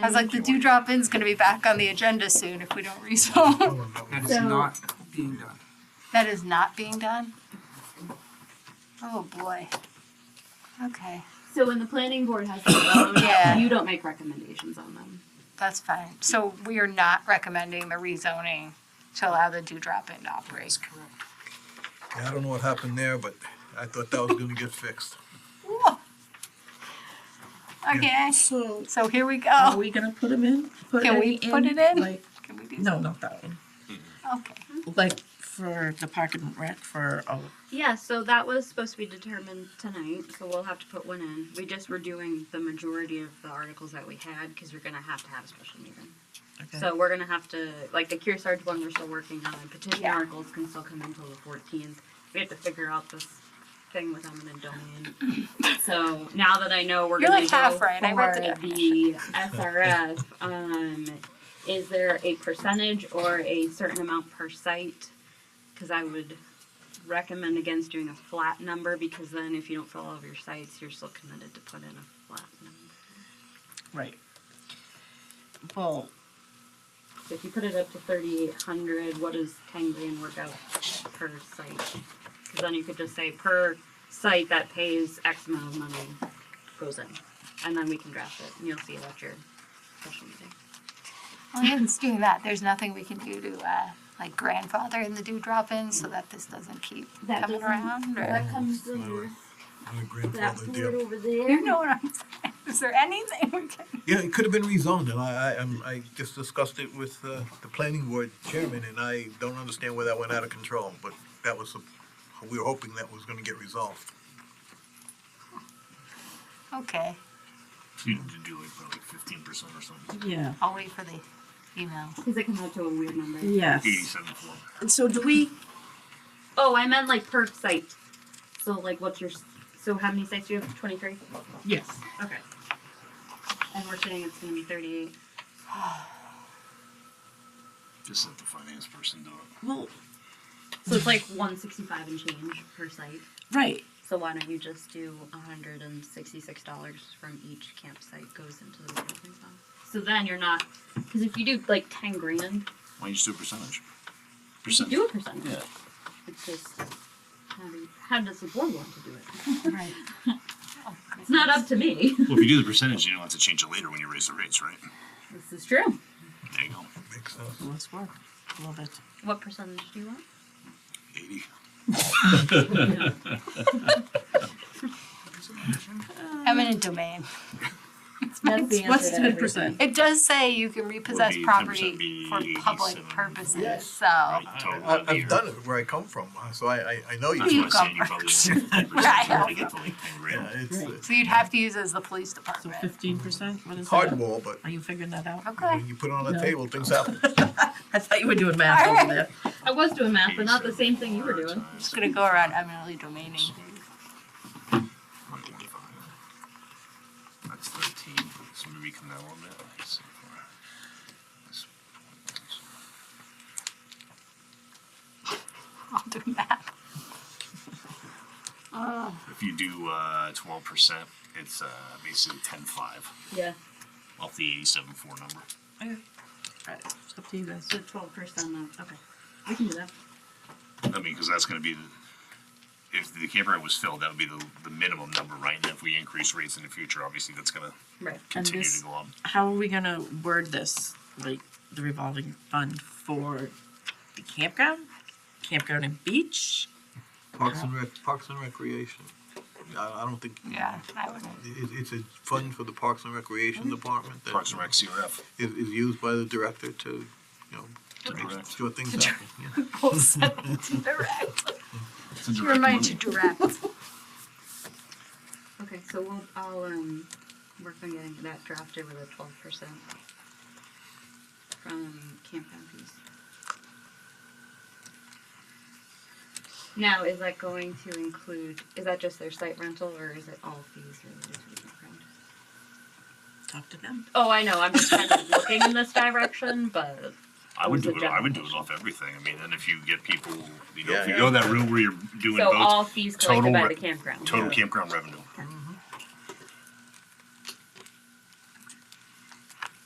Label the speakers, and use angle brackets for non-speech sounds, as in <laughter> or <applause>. Speaker 1: I was like, the dewdrop in's gonna be back on the agenda soon if we don't rezone.
Speaker 2: That is
Speaker 3: So-
Speaker 2: not being done.
Speaker 1: <laughs> That is not being done? Oh, boy. Okay,
Speaker 3: So when the planning board has their own,
Speaker 1: <coughs> Yeah.
Speaker 3: you don't make recommendations on them.
Speaker 1: that's fine. So we are not recommending the rezoning to allow the dewdrop in to operate.
Speaker 4: Yeah, I don't know what happened there, but I thought that was gonna get fixed.
Speaker 1: Whoa. Okay,
Speaker 5: So
Speaker 1: so here we
Speaker 5: are
Speaker 1: go.
Speaker 5: Oh, we gonna put them in? Put
Speaker 1: Oh. Can
Speaker 5: it
Speaker 1: we put it in?
Speaker 5: Like,
Speaker 1: Can we do-
Speaker 5: no, not that one.
Speaker 1: Okay.
Speaker 5: Like for the parking and rec for, oh,
Speaker 3: Yeah, so that was supposed to be determined tonight, so we'll have to put one in. We just were doing the majority of the articles that we had, cause we're gonna have to have a special meeting.
Speaker 5: okay.
Speaker 3: So we're gonna have to, like the Cure Sarge one, we're still working on, and petition
Speaker 1: Yeah.
Speaker 3: articles can still come until the fourteenth. We have to figure out this thing with eminent
Speaker 1: <laughs>
Speaker 3: domain. So now that I know we're
Speaker 1: You're
Speaker 3: gonna
Speaker 1: like
Speaker 3: go
Speaker 1: half
Speaker 3: for
Speaker 1: right. I read the
Speaker 3: the SRF, um, is there a percentage or a certain amount per site? Cause I would recommend against doing a flat number, because then if you don't fill all of your sites, you're still committed to put in a flat number.
Speaker 5: Right. Well,
Speaker 3: So if you put it up to thirty-eight hundred, what does ten grand work out per site? Cause then you could just say per site that pays X amount of money goes in, and then we can draft it, and you'll see it at your special meeting.
Speaker 1: Well, even doing that, there's nothing we can do to, uh, like grandfather in the dewdrop in so that this doesn't keep
Speaker 3: That
Speaker 1: coming
Speaker 3: doesn't-
Speaker 1: around or?
Speaker 3: comes
Speaker 4: Anyway, I'm a grandfather deal.
Speaker 3: over there.
Speaker 1: <laughs> You know what I'm saying? Is there anything we can?
Speaker 4: Yeah, it could have been rezoned, and I, I, I'm- I just discussed it with, uh, the planning board chairman, and I don't understand where that went out of control, but that was, a- we were hoping that was gonna get resolved.
Speaker 1: Okay,
Speaker 6: You need to do like probably fifteen percent or something.
Speaker 5: yeah,
Speaker 1: I'll wait for the email.
Speaker 3: Cause it comes out to a weird number.
Speaker 5: yes.
Speaker 6: Eighty-seven floor.
Speaker 5: And so do we,
Speaker 3: Oh, I meant like per site, so like what's your, s- so how many sites do you have, twenty-three?
Speaker 5: yes,
Speaker 3: Okay. And we're saying it's gonna be thirty-eight.
Speaker 6: Just let the finance person do it.
Speaker 5: well,
Speaker 3: So it's like one sixty-five and change per site.
Speaker 5: right,
Speaker 3: So why don't you just do hundred and sixty-six dollars from each campsite goes into the revolving fund? So then you're not, because if you do like ten grand,
Speaker 6: Why don't you just do a percentage?
Speaker 3: you should
Speaker 6: Percentage.
Speaker 3: do a percentage.
Speaker 6: Yeah.
Speaker 3: It's just, how do, how does the board want to do it?
Speaker 5: right.
Speaker 3: It's not up to me.
Speaker 6: Well, if you do the percentage, you don't have to change it later when you raise the rates, right?
Speaker 3: This is true.
Speaker 6: There you go.
Speaker 4: Makes sense.
Speaker 5: Let's work. Love it.
Speaker 3: What percentage do you want?
Speaker 6: Eighty.
Speaker 1: Eminent domain.
Speaker 3: That's the
Speaker 5: What's
Speaker 3: answer to
Speaker 5: ten percent?
Speaker 1: It does say you can repossess
Speaker 6: Would be 10%
Speaker 1: property
Speaker 6: be
Speaker 1: for public
Speaker 6: 87.
Speaker 1: purposes, so.
Speaker 6: Right, total
Speaker 4: I,
Speaker 6: of the year.
Speaker 4: I've done it where I come from, uh, so I, I, I know you.
Speaker 6: That's
Speaker 1: You
Speaker 6: why I'm
Speaker 1: go
Speaker 6: saying you probably only
Speaker 4: <laughs>
Speaker 6: have 50% to really get to like 10 grand.
Speaker 4: Yeah, it's uh,
Speaker 1: So you'd have to use as the police
Speaker 5: So
Speaker 1: department.
Speaker 5: fifteen percent, what is that?
Speaker 4: hardball, but
Speaker 5: Are you figuring that out?
Speaker 1: Okay,
Speaker 4: when you put it on the
Speaker 5: No.
Speaker 4: table, things happen.
Speaker 5: I thought you were doing math
Speaker 1: All right. <laughs>
Speaker 5: over there.
Speaker 3: I was doing math, but not the same thing you were doing.
Speaker 1: just gonna go around eminently domaining.
Speaker 6: That's thirteen, so maybe come down a little bit. Let's see. This point
Speaker 1: <laughs> I'll do
Speaker 6: <laughs>
Speaker 1: that.
Speaker 6: is- If you do uh twelve percent, it's uh basically ten five
Speaker 3: Yeah,
Speaker 6: off the eighty-seven four number.
Speaker 5: Okay. All right, it's up to you guys.
Speaker 3: so twelve percent of, okay, we can do that.
Speaker 6: I mean, because that's gonna be the, if the campground was filled, that would be the, the minimum number, right? And if we increase rates in the future, obviously, that's gonna
Speaker 3: Right.
Speaker 5: And
Speaker 6: continue
Speaker 5: this,
Speaker 6: to go up.
Speaker 5: how are we gonna word this, like the revolving fund for the campground? Campground and beach?
Speaker 4: Parks and Rec, Parks and Recreation. I, I don't think.
Speaker 1: Yeah, I wouldn't. <laughs>
Speaker 4: It, it's a fund for the Parks and Recreation Department that
Speaker 6: Oh, Parks
Speaker 4: is,
Speaker 6: and Rec, CRF.
Speaker 4: is used by the director to, you know,
Speaker 6: to
Speaker 4: make
Speaker 6: direct.
Speaker 4: sure things happen. yeah.
Speaker 1: Go send it to direct.
Speaker 6: It's a direct
Speaker 1: Remind
Speaker 3: <laughs>
Speaker 1: you
Speaker 6: money.
Speaker 1: direct.
Speaker 3: Okay, so we'll, I'll, um, work on getting that drafted with a twelve percent from campground fees. Now, is that going to include, is that just their site rental, or is it all fees related to the campground?
Speaker 5: Talk to them.
Speaker 3: Oh, I know, I'm just kind of looking in this direction, but,
Speaker 6: I would
Speaker 3: It
Speaker 6: do
Speaker 3: was a
Speaker 6: it, I would do it
Speaker 3: general
Speaker 6: off everything, I mean, and if you get people, you know,
Speaker 4: Yeah,
Speaker 6: if you
Speaker 4: yeah.
Speaker 6: go that route where you're doing
Speaker 3: so all
Speaker 6: both,
Speaker 3: fees
Speaker 6: total
Speaker 3: collected by
Speaker 6: re-
Speaker 3: the campground.
Speaker 6: total campground revenue.
Speaker 3: Okay.